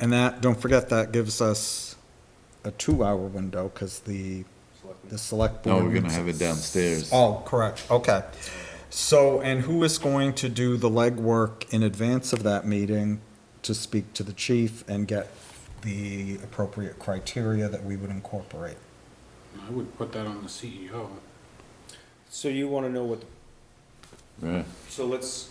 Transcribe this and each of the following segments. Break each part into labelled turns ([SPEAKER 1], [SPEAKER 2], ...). [SPEAKER 1] And that, don't forget, that gives us a two-hour window, because the, the select
[SPEAKER 2] No,
[SPEAKER 1] board.
[SPEAKER 2] Oh, we're gonna
[SPEAKER 1] meets-
[SPEAKER 2] have it downstairs.
[SPEAKER 1] Oh, correct, okay. So, and who is going to do the legwork in advance of that meeting to speak to the chief and get the appropriate criteria that we would incorporate?
[SPEAKER 3] I would put that on the E CEO.
[SPEAKER 4] So you wanna know what,
[SPEAKER 2] Yeah,
[SPEAKER 4] so let's,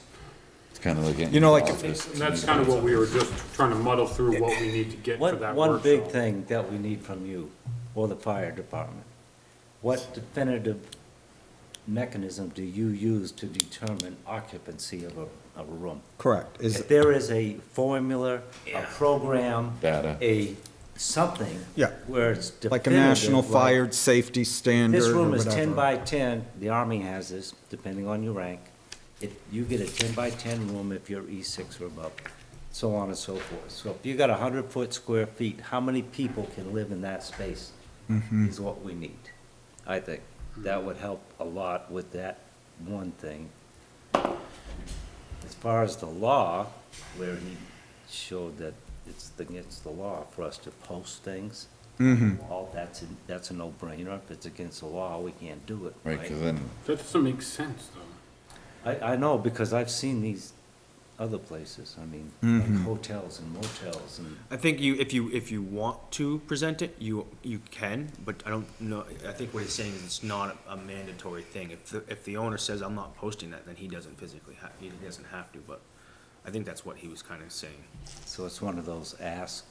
[SPEAKER 2] It's kinda like. getting
[SPEAKER 1] You know, like-
[SPEAKER 2] involved with-
[SPEAKER 3] And that's kind of what we were just trying to muddle through what we need to get for
[SPEAKER 5] One,
[SPEAKER 3] that
[SPEAKER 5] one big
[SPEAKER 3] workshop.
[SPEAKER 5] thing that we need from you, or the fire department, what definitive mechanism do you use to determine occupancy of a, of a room?
[SPEAKER 1] Correct, is,
[SPEAKER 5] If there is a formula, a program,
[SPEAKER 2] Data.
[SPEAKER 5] a something.
[SPEAKER 1] uh, Yeah.
[SPEAKER 5] Where it's
[SPEAKER 1] like a
[SPEAKER 5] definitive.
[SPEAKER 1] national
[SPEAKER 5] like,
[SPEAKER 1] fire safety standard
[SPEAKER 5] This
[SPEAKER 1] or
[SPEAKER 5] room is
[SPEAKER 1] whatever.
[SPEAKER 5] ten by ten, the Army has this, depending on your rank. It, you get a ten by ten room if you're E six or above, so on and so forth. So if you got a hundred foot square feet, how many people can live in that space
[SPEAKER 1] Hmm. Mm-hmm.
[SPEAKER 5] is what we need, I think. That would help a lot with that one thing. As far as the law, where he showed that it's against the law for us to post things.
[SPEAKER 1] Mm-hmm.
[SPEAKER 2] Mm-hmm.
[SPEAKER 5] Well, that's, a- that's a no-brainer. If it's against the law, we can't do it,
[SPEAKER 2] Right, 'cause
[SPEAKER 5] right?
[SPEAKER 2] then,
[SPEAKER 3] That doesn't make sense, though.
[SPEAKER 5] I, I know, because I've seen these other places, I mean,
[SPEAKER 2] Mm-hmm.
[SPEAKER 5] like hotels and motels and,
[SPEAKER 4] I think you, if you, if you want to present it, you, you can, but I don't know, I think what he's saying is it's not a mandatory thing. If, the if the owner says, I'm not posting that, then he doesn't physically have, he doesn't have to, but I think that's what he was kinda saying.
[SPEAKER 5] so it's one of those ask.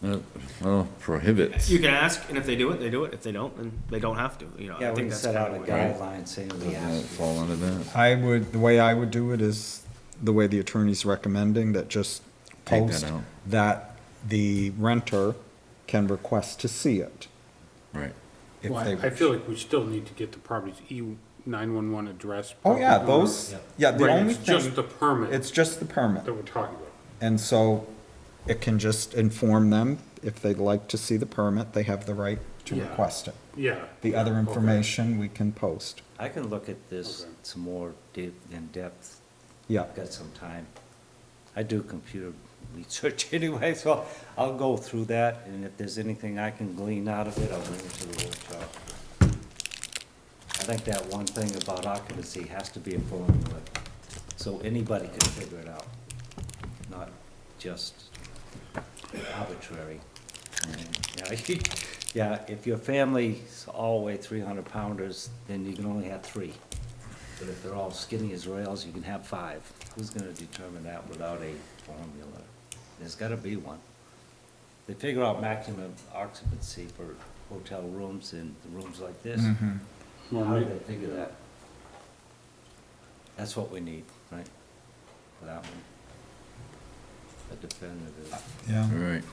[SPEAKER 2] no, uh, well, prohibits.
[SPEAKER 4] You can ask, and if they do it, they do it. If they don't, then they don't have to, you know,
[SPEAKER 5] Yeah,
[SPEAKER 4] I think
[SPEAKER 5] we can
[SPEAKER 4] that's
[SPEAKER 5] set
[SPEAKER 4] kinda
[SPEAKER 5] out a
[SPEAKER 4] what.
[SPEAKER 2] Right.
[SPEAKER 5] guideline saying we
[SPEAKER 2] Doesn't
[SPEAKER 5] ask.
[SPEAKER 2] that fall under that?
[SPEAKER 1] I would, the way I would do it is the way the attorney's recommending, that just
[SPEAKER 2] Take that
[SPEAKER 1] post
[SPEAKER 2] out.
[SPEAKER 1] that the renter can request to see it.
[SPEAKER 2] Right.
[SPEAKER 1] if
[SPEAKER 3] Well,
[SPEAKER 1] they
[SPEAKER 3] I- I
[SPEAKER 1] wish.
[SPEAKER 3] feel like we still need to get the property's E nine-one-one address.
[SPEAKER 1] Oh, yeah,
[SPEAKER 3] property owner.
[SPEAKER 1] those, yeah, the
[SPEAKER 3] Right,
[SPEAKER 1] only
[SPEAKER 3] it's just
[SPEAKER 1] thing,
[SPEAKER 3] the permit
[SPEAKER 1] it's just the
[SPEAKER 3] that
[SPEAKER 1] permit.
[SPEAKER 3] we're talking about.
[SPEAKER 1] And so it can just inform them, if they'd like to see the permit, they have the right to
[SPEAKER 3] Yeah.
[SPEAKER 1] request it.
[SPEAKER 3] Yeah.
[SPEAKER 1] The other
[SPEAKER 3] Okay.
[SPEAKER 1] information we can post.
[SPEAKER 5] I can look at this
[SPEAKER 3] Okay.
[SPEAKER 5] some more deep, in depth.
[SPEAKER 1] Yeah,
[SPEAKER 5] I've got some time. I do computer research anyway, so I'll go through that, and if there's anything I can glean out of it, I'll bring it to the workshop. I think that one thing about occupancy has to be a formula, so anybody can figure it out, not just arbitrary. Yeah, you- Yeah, if your family's all weigh three hundred pounders, then you can only have three. But if they're all skinny as rails, you can have five. Who's gonna determine that without a formula? There's gotta be one. They figure out maximum occupancy for hotel rooms and rooms like this.
[SPEAKER 3] Well,
[SPEAKER 5] How do
[SPEAKER 3] may-
[SPEAKER 5] they figure that? That's what we need, right? For that one. A definitive,
[SPEAKER 1] yeah.
[SPEAKER 2] All right,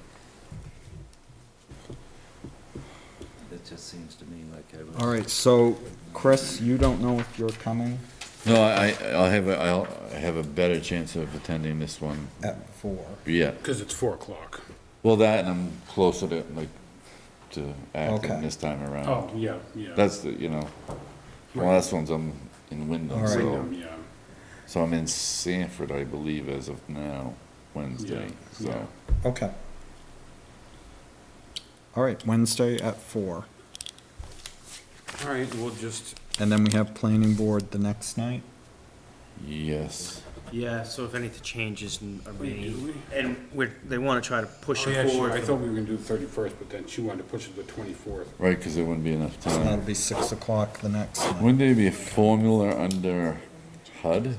[SPEAKER 5] it just seems to me like I was.
[SPEAKER 1] All right, so Chris, you don't know if you're coming
[SPEAKER 2] no, I, I- I'll have, a- I'll I have a better chance of attending this one,
[SPEAKER 1] at four.
[SPEAKER 2] yeah.
[SPEAKER 3] Cause it's four o'clock.
[SPEAKER 2] Well, that and I'm closer to, like, to
[SPEAKER 1] Okay.
[SPEAKER 2] acting this time around.
[SPEAKER 3] Oh, yeah, yeah.
[SPEAKER 2] That's the, you know, the last one's I'm in Wyndham,
[SPEAKER 1] All right.
[SPEAKER 2] so,
[SPEAKER 3] Freedom, Yeah,
[SPEAKER 2] so I'm in Sanford, I believe, as of now, Wednesday,
[SPEAKER 3] Yeah,
[SPEAKER 2] so.
[SPEAKER 1] Okay. All right, Wednesday at four.
[SPEAKER 3] all right, we'll just,
[SPEAKER 1] And then we have planning board the next night.
[SPEAKER 2] Yes,
[SPEAKER 4] Yeah, so if anything changes and, I
[SPEAKER 3] Wait, do
[SPEAKER 4] mean, and we're, they wanna try to push
[SPEAKER 3] oh, yeah,
[SPEAKER 4] it
[SPEAKER 3] she-
[SPEAKER 4] forward.
[SPEAKER 3] I thought we were gonna do the thirty-first, but then she wanted to push it to the twenty-fourth.
[SPEAKER 2] right, cause there wouldn't be enough
[SPEAKER 1] So that'll
[SPEAKER 2] time.
[SPEAKER 1] be six o'clock the next night.
[SPEAKER 2] Wouldn't there be a formula under HUD?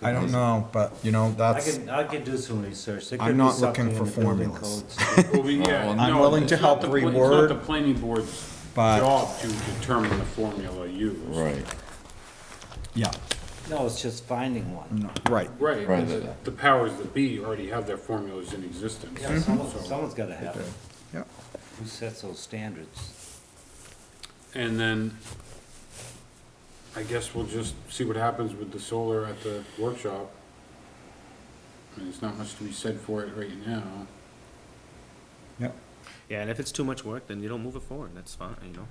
[SPEAKER 1] I don't know, but you know,
[SPEAKER 5] I
[SPEAKER 1] that's,
[SPEAKER 5] can, I can do some research. There
[SPEAKER 1] I'm
[SPEAKER 5] could be
[SPEAKER 1] not looking
[SPEAKER 5] something
[SPEAKER 1] for
[SPEAKER 5] in the building
[SPEAKER 1] formulas.
[SPEAKER 5] codes.
[SPEAKER 3] Well, we, yeah,
[SPEAKER 2] I'm
[SPEAKER 3] no,
[SPEAKER 1] willing
[SPEAKER 3] it's
[SPEAKER 1] to
[SPEAKER 3] not
[SPEAKER 1] help
[SPEAKER 3] the pla- it's not
[SPEAKER 1] reword,
[SPEAKER 3] the planning board's
[SPEAKER 1] but-
[SPEAKER 3] job to determine the formula used.
[SPEAKER 2] Right,
[SPEAKER 1] yeah,
[SPEAKER 5] No, it's just finding one.
[SPEAKER 1] no, right.
[SPEAKER 3] Right,
[SPEAKER 2] Right.
[SPEAKER 3] the- the powers that be already have their formulas in existence.
[SPEAKER 5] Yeah, someone,
[SPEAKER 3] so-
[SPEAKER 5] someone's gotta have it.
[SPEAKER 1] Yeah.
[SPEAKER 5] Who sets those standards?
[SPEAKER 2] Mm-hmm.
[SPEAKER 3] And then, I guess we'll just see what happens with the solar at the workshop. I mean, there's not much to be said for it right now.
[SPEAKER 1] Yep.
[SPEAKER 4] Yeah, and if it's too much work, then you don't move it forward, that's fine, you know,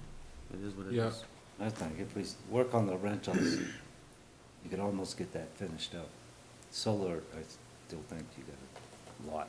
[SPEAKER 4] it is what it
[SPEAKER 3] Yeah.
[SPEAKER 4] is.
[SPEAKER 5] I think if we s- work on the rentals, you could almost get that finished up. Solar, I still think you gotta lot.